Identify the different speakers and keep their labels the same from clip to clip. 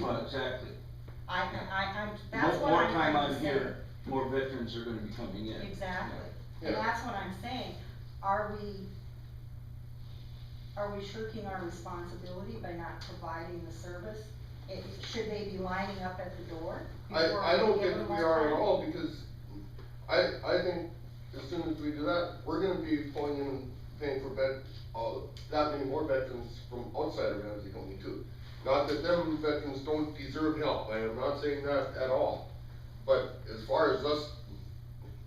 Speaker 1: Well, exactly.
Speaker 2: I, I, I, that's
Speaker 1: More,
Speaker 2: what
Speaker 1: more
Speaker 2: I'm,
Speaker 1: time
Speaker 2: I'm
Speaker 1: out
Speaker 2: saying.
Speaker 1: here, more veterans are gonna be coming in.
Speaker 2: Exactly,
Speaker 3: Yeah.
Speaker 2: and that's what I'm saying, are we, are we shirking our responsibility by not providing the service? It, should they be lining up at the door? before
Speaker 3: I, I don't
Speaker 2: give
Speaker 3: think
Speaker 2: them
Speaker 3: we
Speaker 2: our
Speaker 3: are at
Speaker 2: time?
Speaker 3: all, because I, I think as soon as we do that, we're gonna be pulling in and paying for bed, uh, that many more veterans from outside of Ramsey County too. Not that them veterans don't deserve help, I am not saying that at all, but as far as us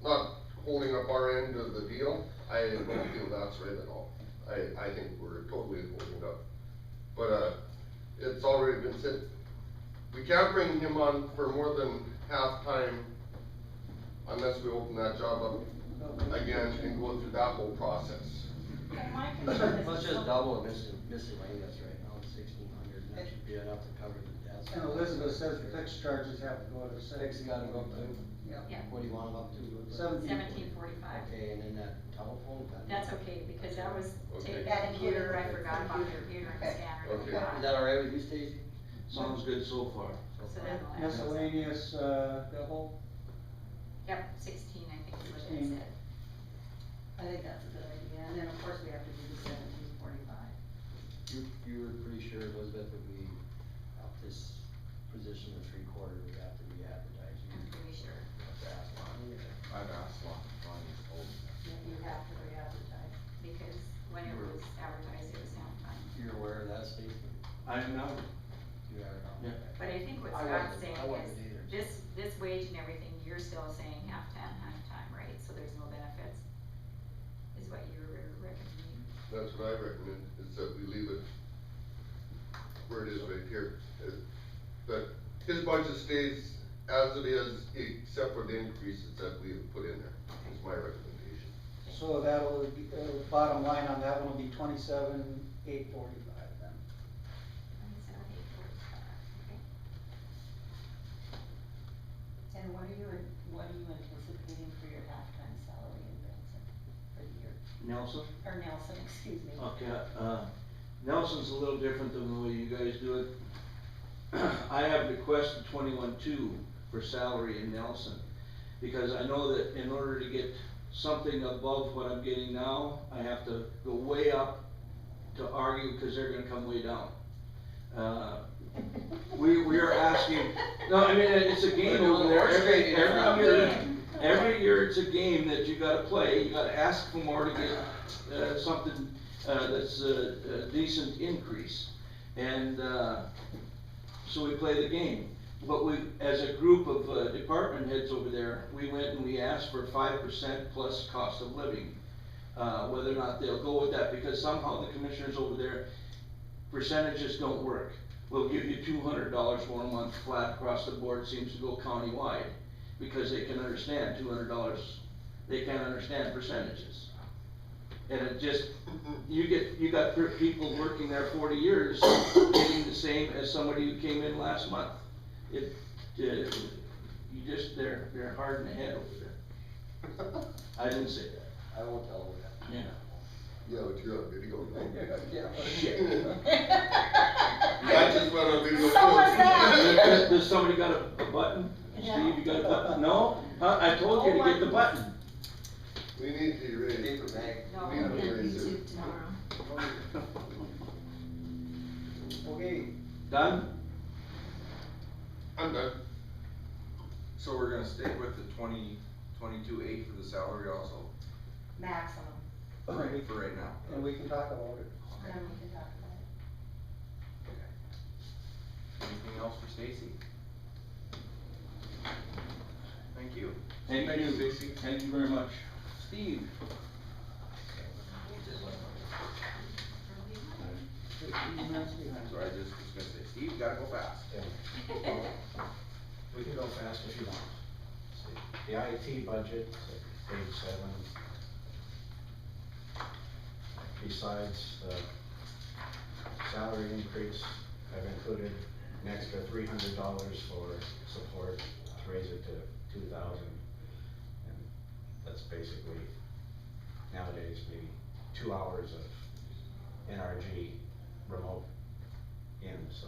Speaker 3: not holding up our end of the deal, I don't feel that's right at all. I, I think we're totally holding up, but, uh, it's already been said, we can't bring him on for more than half time unless we open that job up again and go through that whole process.
Speaker 2: And my concern is.
Speaker 4: Let's
Speaker 2: it's
Speaker 4: just
Speaker 2: so-
Speaker 4: double mis- miscellaneous right now, sixteen hundred, and that should be enough to cover the debt.
Speaker 5: And Elizabeth says fixed charges have to go to the city.
Speaker 4: Six got it up to,
Speaker 6: Yeah,
Speaker 4: what do you want them up to?
Speaker 5: Seventeen.
Speaker 6: seventeen forty-five.
Speaker 4: Okay, and then that telephone. that-
Speaker 6: That's okay, because that was
Speaker 3: Okay.
Speaker 6: taken,
Speaker 2: That
Speaker 6: computer, I
Speaker 2: included-
Speaker 6: forgot about the computer and
Speaker 2: Okay.
Speaker 6: scanner. and
Speaker 3: Okay.
Speaker 6: whatnot.
Speaker 4: Is that all right with you, Stacy?
Speaker 1: Sounds good so far.
Speaker 6: So that'll add.
Speaker 5: Miscellaneous, uh, double,
Speaker 6: Yep, sixteen, I think is what
Speaker 5: 16.
Speaker 6: it said.
Speaker 7: I think that's a good idea, and then of course we have to do the seventeen forty-five.
Speaker 4: You, you were pretty sure Elizabeth would be up this position of three quarter would have to be advertised. You
Speaker 6: I'm pretty sure.
Speaker 4: have to ask Lonnie or-
Speaker 8: I've asked Lon, Lonnie's old.
Speaker 7: You have to re-advertise.
Speaker 6: Because when it was advertised, it was half time.
Speaker 4: You're aware of that, Stacy?
Speaker 1: I don't know.
Speaker 4: You are. now?
Speaker 1: Yeah.
Speaker 4: Okay.
Speaker 6: But I think what
Speaker 4: I
Speaker 6: Scott's
Speaker 4: wasn't-
Speaker 6: saying
Speaker 4: I wasn't
Speaker 6: is,
Speaker 4: either.
Speaker 6: this, this wage and everything, you're still saying half time, half time, right? So there's no benefits, is what you're recommending.
Speaker 3: That's what I recommend, is that we leave it where it is right here. It- That his budget stays as it is, except for the increases that we have put in there, is my recommendation.
Speaker 5: so that'll, be- uh, bottom line on that one will be twenty-seven, eight forty-five then.
Speaker 6: Twenty-seven, eight, forty-five, okay?
Speaker 2: And what are you, what are you anticipating for your halftime salary in Benson for the year,
Speaker 1: Nelson?
Speaker 2: or Nelson, excuse me?
Speaker 1: Okay, uh, Nelson's a little different than the way you guys do it. I have requested twenty-one-two for salary in Nelson, because I know that in order to get something above what I'm getting now, I have to go way up to argue, because they're gonna come way down. Uh, we, we are asking, no, I mean, it's a game over there, every, every year, every year it's a game that you gotta play, you gotta ask for more to get, uh, something, uh, that's a, a decent increase. And, uh, so we play the game, but we, as a group of, uh, department heads over there, we went and we asked for five percent plus cost of living. Uh, whether or not they'll go with that, because somehow the commissioners over there, percentages don't work. We'll give you two hundred dollars for a month flat across the board, seems to go countywide, because they can understand two hundred dollars, they can't understand percentages. And it just, you get, you got per- people working there forty years, getting the same as somebody who came in last month. It, uh, you just, they're, they're hard in the head over there. I didn't say that,
Speaker 4: I won't tell her that.
Speaker 1: yeah.
Speaker 3: Yeah, but you're on video.
Speaker 1: Shit.
Speaker 3: I just went on video.
Speaker 2: So was
Speaker 3: too.
Speaker 2: that.
Speaker 1: Does somebody got a, a button? Steve, you got a button? No? Huh, I told you to get the button.
Speaker 3: We need to raise.
Speaker 4: Paper bag.
Speaker 6: No,
Speaker 3: We need
Speaker 6: we
Speaker 3: to raise it.
Speaker 6: tomorrow.
Speaker 5: Okay,
Speaker 1: Done?
Speaker 3: I'm done.
Speaker 8: So we're gonna stick with the twenty, twenty-two eight for the salary also,
Speaker 2: Maximum,
Speaker 5: and we-
Speaker 8: for right now.
Speaker 5: and we can talk about it.
Speaker 2: then we can talk about it.
Speaker 8: Anything else for Stacy? Thank you.
Speaker 1: Thank
Speaker 8: Thanks,
Speaker 1: you.
Speaker 8: Stacy.
Speaker 1: Thank you very much. Steve?
Speaker 5: Fifteen minutes behind.
Speaker 8: So I just was gonna say, Steve, you gotta go fast.
Speaker 9: We can go fast if you want. The IT budget, so page seven. Besides the salary increase, I've included an extra three hundred dollars for support to raise it to two thousand. And that's basically nowadays maybe two hours of NRG remote in, so